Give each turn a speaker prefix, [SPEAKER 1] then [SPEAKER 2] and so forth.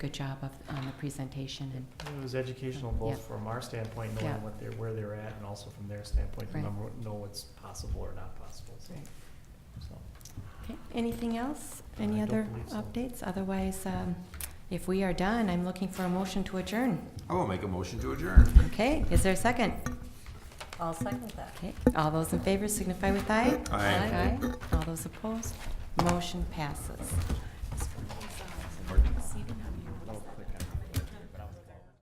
[SPEAKER 1] good job of, on the presentation and,
[SPEAKER 2] It was educational both from our standpoint,
[SPEAKER 1] Yeah.
[SPEAKER 2] knowing what they're, where they're at, and also from their standpoint, to
[SPEAKER 1] Right.
[SPEAKER 2] number- know what's possible or not possible, so.
[SPEAKER 1] Right.
[SPEAKER 2] so.
[SPEAKER 1] okay, anything else?
[SPEAKER 2] No, I
[SPEAKER 1] Any
[SPEAKER 2] don't
[SPEAKER 1] other
[SPEAKER 2] believe so.
[SPEAKER 1] updates? Otherwise, um, if we are done, I'm looking for a motion to adjourn.
[SPEAKER 3] I will make a motion to adjourn.
[SPEAKER 1] Okay, is there a second?
[SPEAKER 4] I'll second that.
[SPEAKER 1] Okay, all those in favor signify with aye.
[SPEAKER 3] Aye.
[SPEAKER 1] All those opposed, motion passes.